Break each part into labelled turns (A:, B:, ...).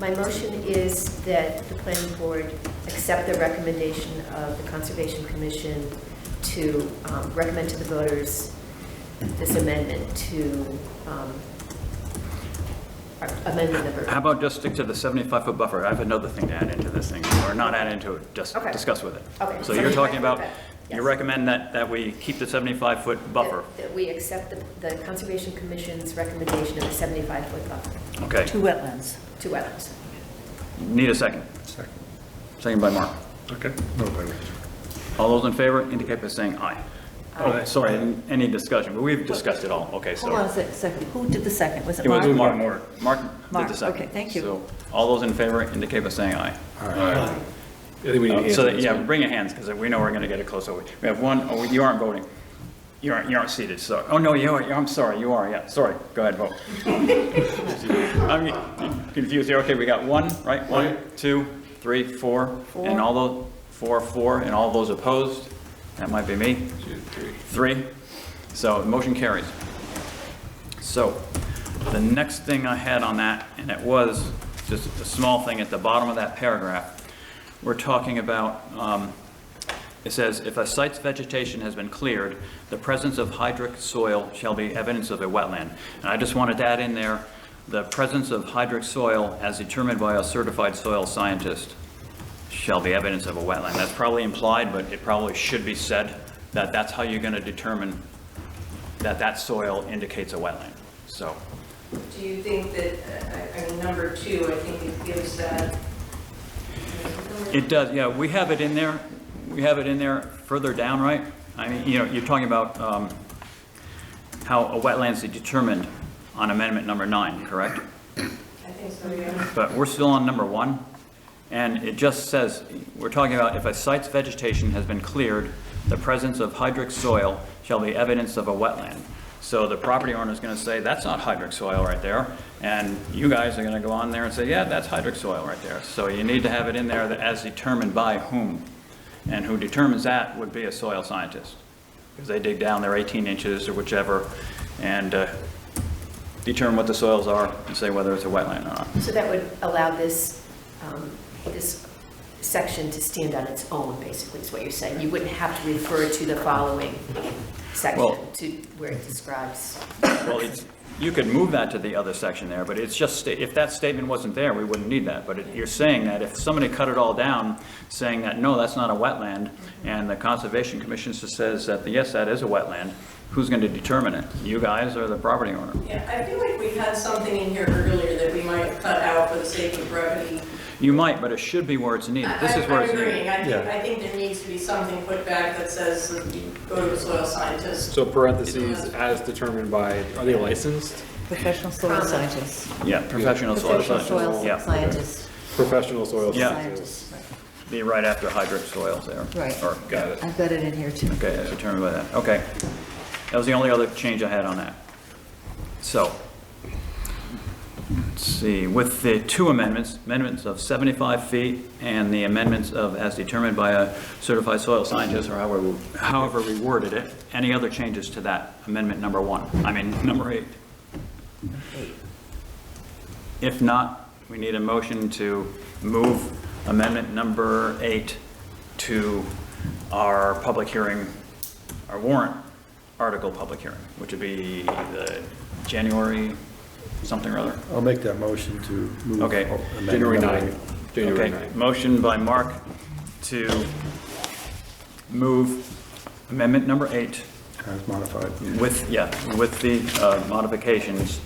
A: My motion is that the planning board accept the recommendation of the Conservation Commission to um, recommend to the voters this amendment to um, amendment
B: How
A: number,
B: about just stick to the 75-foot buffer? I have another thing to add into this thing, or not add into it, just
A: Okay.
B: discuss with it.
A: Okay,
B: So you're
A: 75
B: talking about,
A: foot, yes.
B: you recommend that, that we keep the 75-foot buffer?
A: that- that we accept the- the Conservation Commission's recommendation of a 75-foot buffer
B: Okay,
C: Two wetlands.
A: to wetlands.
B: need a second.
D: Second.
B: Second by Mark.
D: Okay. No, wait,
B: All those in favor indicate by saying aye. Oh,
D: Aye.
B: sorry, n- any discussion, but we've discussed it all, okay, so.
C: Hold on a sec- second, who did the second? Was it
B: It was
C: Mark?
B: Mark Moore. Mark did
C: Mark,
B: the second.
C: okay, thank you.
B: So all those in favor indicate by saying aye.
D: I think we need
B: Uh,
D: hands
B: So,
D: on
B: that-
D: this
B: yeah,
D: one.
B: bring your hands, because we know we're going to get it close. over. We have one, oh, you aren't voting. You aren't, you aren't seated, so, oh, no, you are, you- I'm sorry, you are, yeah, sorry, go ahead, vote. I'm confused here, okay, we got one, right? One, two, three, four, and all those, four, four, and all those opposed? That might be me. Three, so the motion carries. So, the next thing I had on that, and it was just a small thing at the bottom of that paragraph, we're talking about, um, it says, "If a site's vegetation has been cleared, the presence of hydric soil shall be evidence of a wetland." And I just wanted to add in there, "The presence of hydric soil as determined by a certified soil scientist shall be evidence of a wetland." That's probably implied, but it probably should be said, that that's how you're going to determine that that soil indicates a wetland. So,
E: Do you think that, uh, I I mean, number two, I think it gives that,
B: It does, yeah, we have it in there, we have it in there further down, right? I mean, you know, you're talking about um, how a wetland's determined on amendment number nine, correct?
E: I think so, yeah.
B: But we're still on number one, and it just says, we're talking about if a site's vegetation has been cleared, the presence of hydric soil shall be evidence of a wetland. So the property owner's gonna say, that's not hydric soil right there, and you guys are gonna go on there and say, yeah, that's hydric soil right there. So you need to have it in there that as determined by whom, and who determines that would be a soil scientist. Because they dig down their 18 inches or whichever, and uh, determine what the soils are, and say whether it's a wetland or not.
A: So that would allow this, um, this section to stand on its own, basically, is what you're saying. You wouldn't have to refer to the following
B: Well-
A: section to where it describes.
B: Well, it's, you could move that to the other section there, but it's just, sta- if that statement wasn't there, we wouldn't need that. But it- you're saying that if somebody cut it all down, saying that, no, that's not a wetland, and the Conservation Commission s- says that, yes, that is a wetland, who's going to determine it? You guys or the property owner?
E: Yeah, I feel like we had something in here earlier that we might have cut out for the sake of brevity.
B: You might, but it should be where it's needed. This
E: I-
B: is where
E: I'm
B: it's
E: agreeing.
B: needed.
E: I think,
D: Yeah.
E: I think there needs to be something put back that says that you go to a soil scientist.
D: So parentheses, as determined by, are they licensed?
C: Professional soil scientists.
B: Yeah, professional soil
C: Professional
B: scientist.
C: soil
B: Yeah,
C: scientists.
D: Professional soil
B: Yeah.
D: scientists.
B: be right after hydric soils there.
C: Right.
B: Or, got it.
C: I've got it in here too.
B: Okay, as determined by that, okay. That was the only other change I had on that. So, let's see, with the two amendments, amendments of 75 feet and the amendments of as determined by a certified soil scientist, or however, however we worded it, any other changes to that amendment number one, I mean, number eight? If not, we need a motion to move amendment number eight to our public hearing, our warrant article public hearing, which would be the January something or other.
F: I'll make that motion to move.
B: Okay.
F: amendment
D: January
F: number
D: 9. January
B: Okay,
D: 9.
B: motion by Mark to move amendment number eight
F: eight, As modified.
B: with, yeah, with the uh, modifications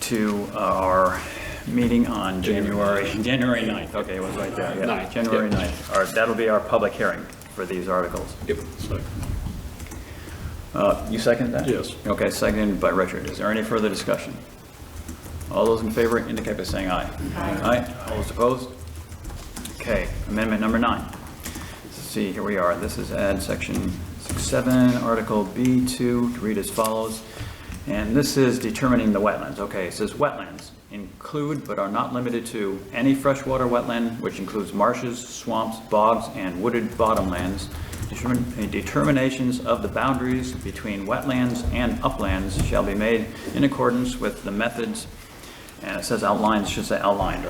B: to our meeting on January, January 9th, okay, it was right there, yeah.
D: Ninth,
B: January
D: yeah.
B: 9th, All right, that'll be our public hearing for these articles.
D: Yep.
B: Uh, You second that?
D: Yes.
B: Okay, seconded by Richard. Is there any further discussion? All those in favor indicate by saying aye. Aye. All those opposed? Okay, amendment number nine. Let's see, here we are. This is add section six, seven, article B2, to read as follows. And this is determining the wetlands. Okay, it says wetlands include but are not limited to any freshwater wetland, which includes marshes, swamps, bogs, and wooded bottomlands. Determin- Determinations of the boundaries between wetlands and uplands shall be made in accordance with the methods, and it says outlines, should say outlined, right?